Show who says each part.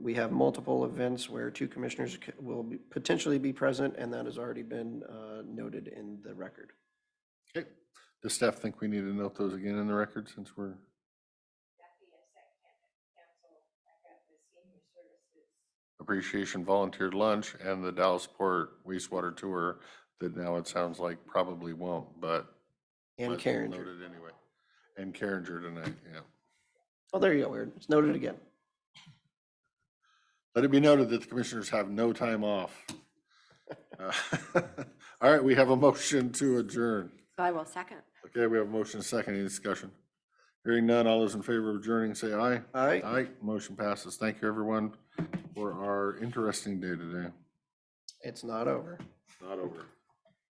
Speaker 1: we have multiple events where two commissioners c- will be- potentially be present, and that has already been uh, noted in the record.
Speaker 2: Okay, does staff think we need to note those again in the record since we're,
Speaker 3: Becky of Sac Council, I got the senior services.
Speaker 2: appreciation volunteered lunch and the Dallasport wastewater tour that now it sounds like probably won't, but.
Speaker 1: And
Speaker 2: but
Speaker 1: Carringer.
Speaker 2: Noted anyway. And Carringer tonight, yeah.
Speaker 1: Oh, there you go, Aaron. It's noted again.
Speaker 2: Let it be noted that the commissioners have no time off. Uh, All right, we have a motion to adjourn.
Speaker 4: I will second.
Speaker 2: Okay, we have a motion, and a second, any discussion? Hearing none, all those in favor of adjourning, say aye.
Speaker 1: All right.
Speaker 2: Aye, motion passes. Thank you, everyone, for our interesting day today.
Speaker 1: It's not over.
Speaker 2: Not over.